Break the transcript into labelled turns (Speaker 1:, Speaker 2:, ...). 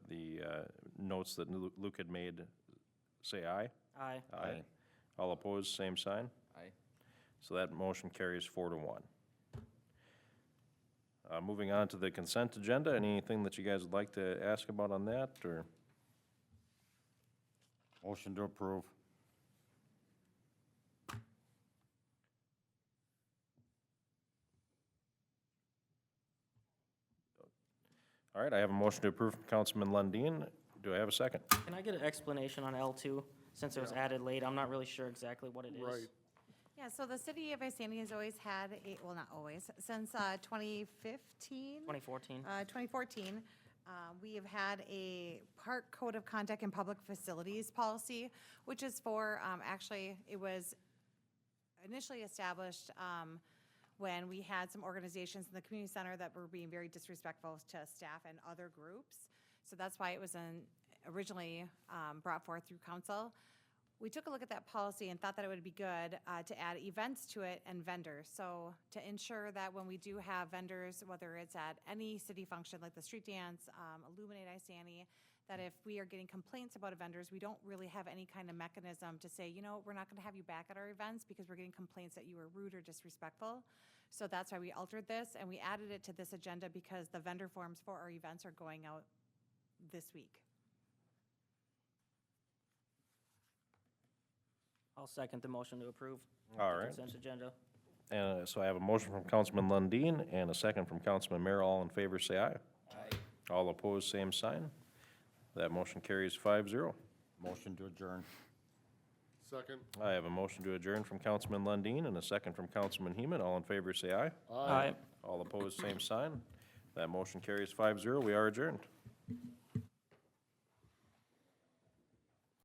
Speaker 1: uh, notes that Lu- Luke had made, say aye.
Speaker 2: Aye.
Speaker 1: Aye. All opposed, same sign.
Speaker 3: Aye.
Speaker 1: So that motion carries four to one. Uh, Moving on to the consent agenda, anything that you guys would like to ask about on that, or
Speaker 3: Motion to approve.
Speaker 1: All right, I have a motion to approve from Councilman Lundin. Do I have a second?
Speaker 2: Can I get an explanation on L2, since it was added late? I'm not really sure exactly what it is.
Speaker 4: Right.
Speaker 5: Yeah, so the city of Isani has always had, a- well, not always, since uh, 2015?
Speaker 2: 2014.
Speaker 5: uh, 2014, uh, we have had a park code of conduct and public facilities policy, which is for, um, actually, it was initially established um, when we had some organizations in the community center that were being very disrespectful to staff and other groups. So that's why it was an- originally um, brought forth through council. We took a look at that policy and thought that it would be good uh, to add events to it and vendors. So to ensure that when we do have vendors, whether it's at any city function like the street dance, um, Illuminate Isani, that if we are getting complaints about vendors, we don't really have any kind of mechanism to say, you know, we're not going to have you back at our events because we're getting complaints that you were rude or disrespectful. So that's why we altered this and we added it to this agenda because the vendor forms for our events are going out this week.
Speaker 2: I'll second the motion to approve.
Speaker 1: All right.
Speaker 2: Consent agenda.
Speaker 1: And uh, so I have a motion from Councilman Lundin and a second from Councilman Merrill. All in favor, say aye.
Speaker 3: Aye.
Speaker 1: All opposed, same sign. That motion carries five zero.
Speaker 3: Motion to adjourn.
Speaker 4: Second.
Speaker 1: I have a motion to adjourn from Councilman Lundin and a second from Councilman Heman. All in favor, say aye.
Speaker 2: Aye.
Speaker 1: All opposed, same sign. That motion carries five zero. We are adjourned.